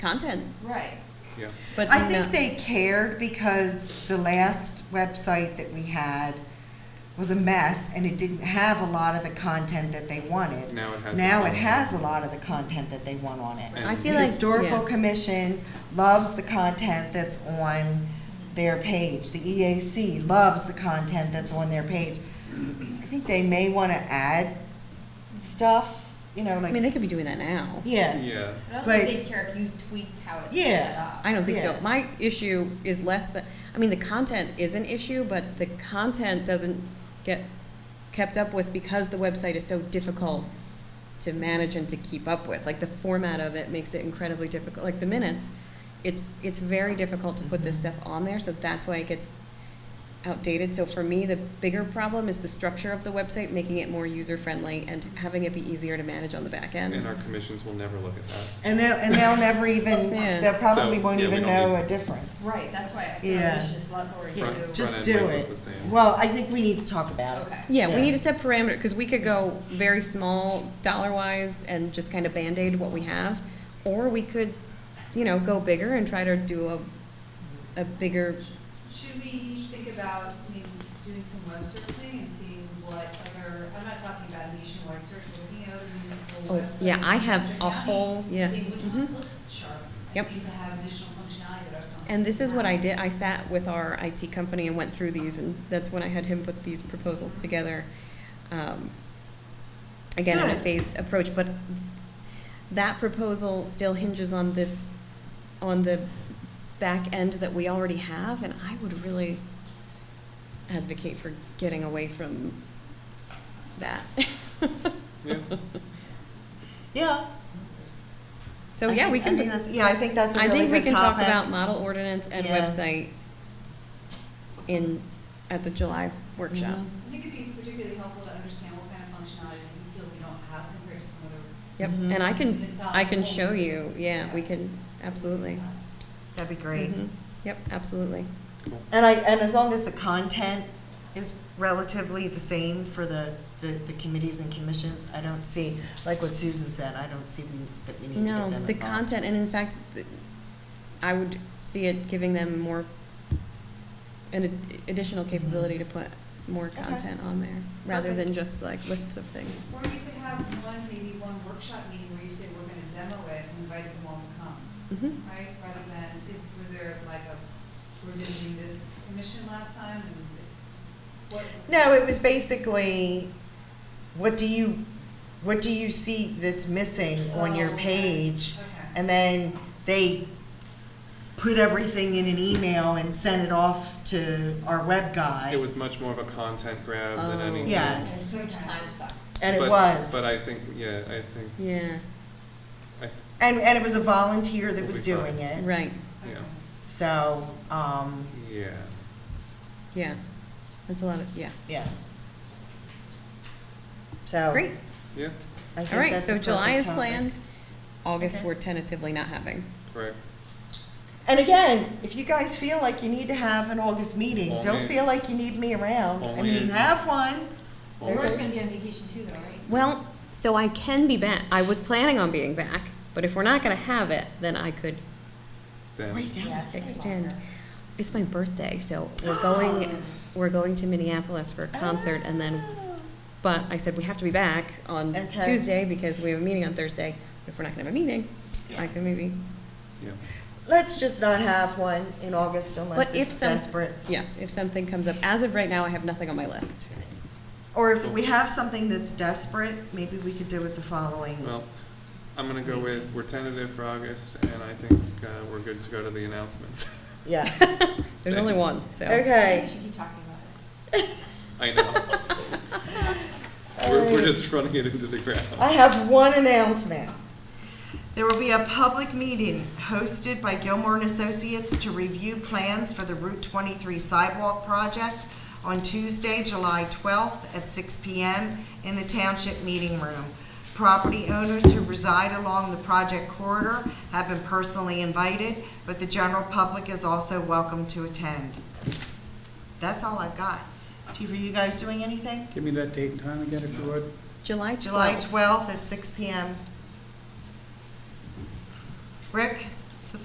content, Right. Yeah, but I think not- they cared because the last website that we had was a mess and it didn't have a lot of the content that they wanted. Now it has the Now it content. has a lot of the content that they want on it. I And- feel the like historical yeah. commission loves the content that's on their page. The EAC loves the content that's on their page. I think they may want to add stuff, you know, I like mean, they could be doing that now. yeah, yeah, I don't think But- they care if you tweaked how it's Yeah. set up. I don't think so. Yeah. My issue is less that, I mean, the content is an issue, but the content doesn't get kept up with because the website is so difficult to manage and to keep up with. Like the format of it makes it incredibly difficult, like the minutes. It's, it's very difficult to put this Mm-hmm. stuff on there, so that's why it gets outdated. So for me, the bigger problem is the structure of the website, making it more user-friendly and having it be easier to manage on the back end. and our commissions will never look at that. and they'll and they'll never even Yeah. they probably So, won't yeah, we even don't know need- a difference. Right, that's why I feel Yeah. like we should just let Lori do. Front- front Just end do might look it. the same. Well, I think we need to talk about it. Okay. Yeah, we Yeah. need to set parameter, because we could go very small dollar wise and just kind of Band-Aid what we have. Or we could, you know, go bigger and try to do a, a bigger, Should we think about maybe doing some web surfing and seeing what other, I'm not talking about nationwide search, but looking at other municipal Oh, websites? yeah, I in have Westchester a County, whole- and yeah. Mm-hmm. Seeing which ones look sharp Yep. and seem to have additional functionality that ours don't. and this is what I have. did, I sat with our IT company and went through these, and that's when I had him put these proposals together. um, Again, in a Good. phased approach, but that proposal still hinges on this, on the back end that we already have, and I would really advocate for getting away from that. Yeah, Yeah. So, I yeah, think- we I think can, that's, yeah, I think that's a I really think we good can talk topic. about model ordinance and Yeah. website in, at the July workshop. Mhm. I think it'd be particularly helpful to understand what kind of functionality that you feel we don't have compared to some other. Yep, Mhm. and I can, I can municipalities. show you, yeah, we can, absolutely. That'd be great. Mhm. Yep, absolutely. cool. And I, and as long as the content is relatively the same for the, the, the committees and commissions, I don't see, like what Susan said, I don't see we- that we need to get them No, involved. the content, and in fact, th- I would see it giving them more, an ad- additional capability to put more Mm-hmm. Okay. content on there, rather Perfect. than just like lists of things. Or you could have one, maybe one workshop meeting where you say, we're gonna demo it and invite them all to come. Mhm. right, rather than, is, was there like a, we're visiting this commission last time and what? No, it was basically, what do you, what do you see that's missing on your Oh, okay. page? Okay, And then they put everything in an email and sent it off to our web guy. It was much more of a content grab than Oh. anything. Yes. It's huge time suck. And it But- was. But I think, yeah, I think, Yeah, I, And, and it was a volunteer that We'll was be fine. doing it. right, yeah, So, um, yeah. yeah, that's a lot of, yeah. yeah. So. Great, Yeah, I all think right, that's so a July perfect is topic. planned, August Okay. we're tentatively not having. correct. And again, if you guys feel like you need to have an August meeting, don't Only- feel like you need me around. I only mean, in- have one. Laura's gonna be on vacation too though, right? Well, so I can be back, I was planning on being back, but if we're not gonna have it, then I could Stand. Yeah, it's gonna be extend. longer. It's my birthday, so we're going, we're going to Minneapolis for a concert and then, but I said we have to be back on Okay. Tuesday because we have a meeting on Thursday. If we're not gonna have a meeting, I could maybe, Yeah, Let's just not have one in August unless But if it's some- desperate. yes, if something comes up. As of right now, I have nothing on my list. Or if we have something that's desperate, maybe we could do it the following. well, I'm gonna go with, we're tentative for August, and I think, uh, we're good to go to the announcements. Yeah. There's only one, so. I think Okay. we should keep talking about it. I know. We're, we're just running it into the ground. I have one announcement. There will be a public meeting hosted by Gilmore and Associates to review plans for the Route 23 sidewalk project on Tuesday, July 12th at 6 PM in the Township Meeting Room. Property owners who reside along the project corridor have been personally invited, but the general public is also welcome to attend. That's all I've got. Chief, are you guys doing anything? Give me that date and time again if you would. July July twelfth. 12th at 6 PM. Rick,